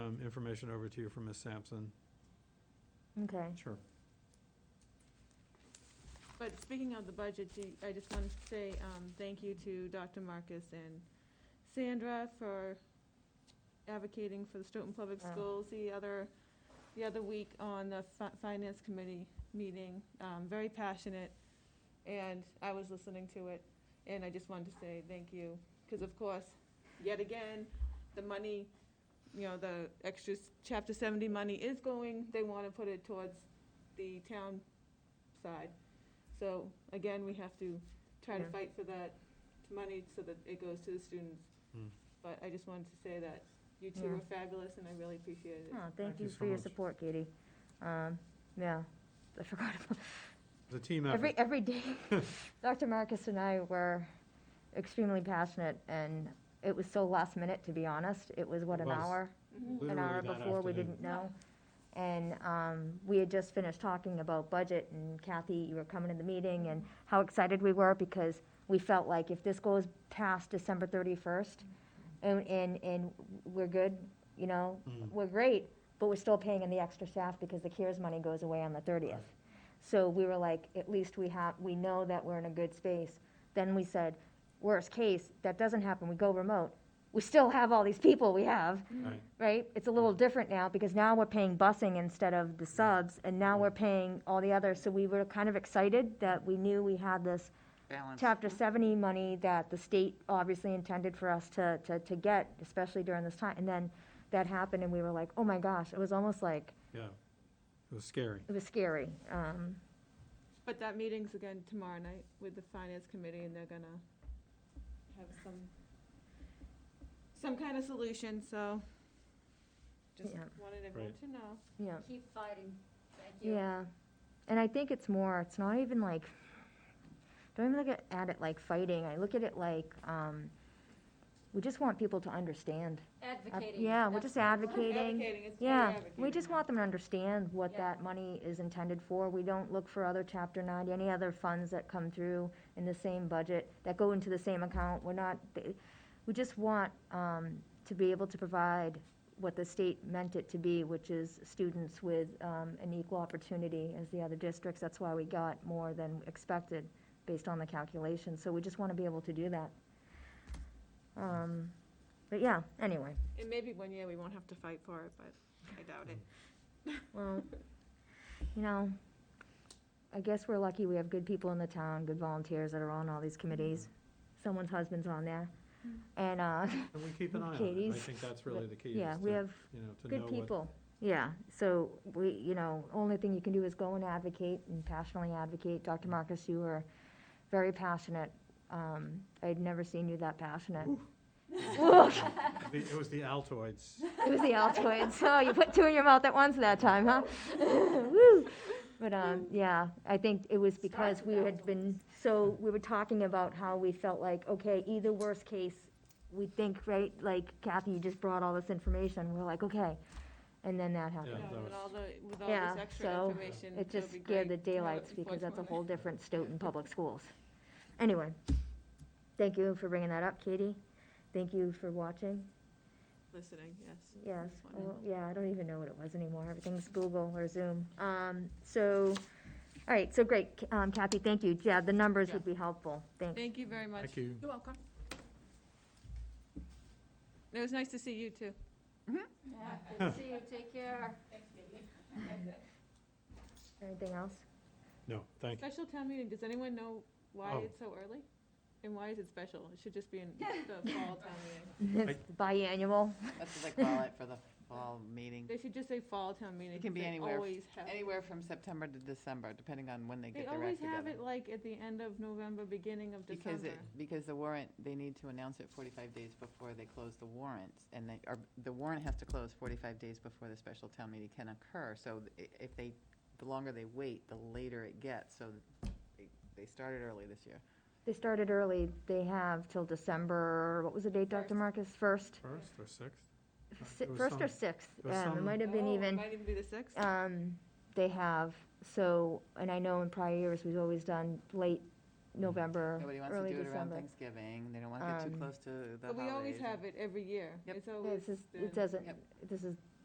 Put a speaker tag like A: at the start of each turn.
A: information over to you from Ms. Sampson.
B: Okay.
A: Sure.
C: But speaking of the budget, do- I just wanted to say um, thank you to Dr. Marcus and Sandra for advocating for the Stoughton Public
B: Yeah.
C: Schools the other, the other week on the fi- Finance Committee meeting. Um, Very passionate, and I was listening to it, and I just wanted to say thank you. Because of course, yet again, the money, you know, the extra s- Chapter 70 money is going, they want to put it towards the town side. So again, we have to try to
B: Yeah.
C: fight for that money so that it goes to the students.
A: Hmm.
C: But I just wanted to say that you two
B: Yeah.
C: were fabulous and I really appreciated it.
B: Oh,
A: Thank
B: thank
A: you
B: you
A: so
B: for your
A: much.
B: support, Katie. Um, yeah, I forgot about
A: The team effort.
B: Every, every day, Dr. Marcus and I were extremely passionate, and it was so last minute, to be honest. It was, what,
A: It
B: an
A: was.
B: hour?
C: Mhm.
B: An
A: Literally
B: hour
A: that
B: before, we
A: afternoon.
B: didn't know. And um, we had just finished talking about budget, and Kathy, you were coming to the meeting, and how excited we were, because we felt like if this goes past December 31st, and, and, and we're good, you know,
A: Mm.
B: we're great, but we're still paying in the extra staff because the CARES money goes away on the 30th. So we were like, at least we have, we know that we're in a good space. Then we said, worst case, that doesn't happen, we go remote. We still have all these people we have,
A: Mm, Right.
B: right? It's a little different now because now we're paying busing instead of the subs and now we're paying all the others. So we were kind of excited that we knew we had this
D: balance.
B: chapter seventy money that the state obviously intended for us to, to, to get, especially during this time. And then that happened and we were like, oh my gosh, it was almost like,
A: Yeah. It was scary.
B: it was scary. Um,
C: But that meeting's again tomorrow night with the finance committee and they're gonna have some, some kind of solution, so just
B: Yeah.
C: wanted everyone
A: Right.
C: to know.
B: yeah.
E: Keep fighting. Thank you.
B: Yeah, and I think it's more, it's not even like, don't even look at, at it like fighting, I look at it like, um, we just want people to understand. Uh,
E: Advocating.
B: Yeah, we're just
E: That's-
B: advocating,
C: it's very
B: yeah, we
C: advocating.
B: just want them to understand what
E: Yeah.
B: that money is intended for, we don't look for other chapter ninety, any other funds that come through in the same budget, that go into the same account, we're not, th- we just want, um, to be able to provide what the state meant it to be, which is students with um, an equal opportunity as the other districts. That's why we got more than expected based on the calculations. So we just want to be able to do that. Um, But yeah, anyway,
C: And maybe one year we won't have to fight for it, but I doubt it.
B: well, you know, I guess we're lucky we have good people in the town, good volunteers that are on all these committees. Someone's husband's on there. And, uh,
A: And we keep an eye on it. I
B: Katie's-
A: think that's really the key.
B: yeah,
A: is
B: we
A: to,
B: have
A: You know, to know
B: Good
A: what.
B: people, yeah. So we, you know, only thing you can do is go and advocate and passionately advocate. Dr. Marcus, you were very passionate. Um, I'd never seen you that passionate.
A: The- It was the Altoids.
B: It was the Altoids. Oh, you put two in your mouth at once that time, huh? Woo! But, um, yeah, I think it was because
E: Starts
B: we
E: with
B: had been, so, we were talking about how we felt like, okay, either worst case, we think, right, like Kathy, you just brought all this information. We're like, okay. And then that
C: Yeah,
B: happened.
A: that was-
C: With all the, with all
B: Yeah,
C: this extra
B: so
C: information.
B: It just
C: would be
B: scared the
C: great to have it
B: daylights
C: before
B: because that's a
C: tomorrow
B: whole
C: night.
B: different Stoughton Public Schools. Anyway, thank you for bringing that up, Katie. Thank you for watching.
C: Listening, yes.
B: Yes,
C: That's
B: I
C: wonderful.
B: don't- yeah, I don't even know what it was anymore. Everything's Google or Zoom. Um, so, all right, so great. K- Um, Kathy, thank you. Yeah, the numbers would be helpful. Thanks.
C: Thank you very much.
A: Thank you.
E: You're welcome.
C: It was nice to see you too.
E: Yeah, good to see you, take care.
B: Anything else?
A: No, thank you.
C: Special town meeting, does anyone know why
A: Oh.
C: it's so early? And why is it special? It should just be in the fall town meeting.
B: It's biannual.
D: That's what they call it for the fall meeting.
C: They should just say fall town meeting.
D: It can
C: 'cause
D: be
C: they
D: anywhere.
C: always have it.
D: Anywhere from September to December, depending on when they
C: They
D: get their
C: always
D: act
C: have
D: together.
C: it like at the end of November, beginning of
D: Because it,
C: December.
D: because the warrant, they need to announce it 45 days before they close the warrants. And they, or the warrant has to close 45 days before the special town meeting can occur. So i- if they, the longer they wait, the later it gets. So they- they started early this year.
B: They started early. They have till December, what was the date, Dr.
E: First.
B: Marcus? First?
A: First or sixth?
B: Si-
A: It was
B: First or
A: some-
B: sixth?
A: it was
B: Um, It
A: some-
B: might have been
C: Oh,
B: even.
C: Might even be the sixth.
B: Um, they have, so, and I know in prior years, we've always done late November,
D: Nobody wants to
B: early
D: do it around
B: December.
D: Thanksgiving. They don't want to get too
B: Um,
D: close to the
C: But
D: holidays.
C: we always have it every year.
D: Yep.
C: It's
B: This
C: always.
B: is,
C: been-
B: it doesn't,
D: Yep.
B: this is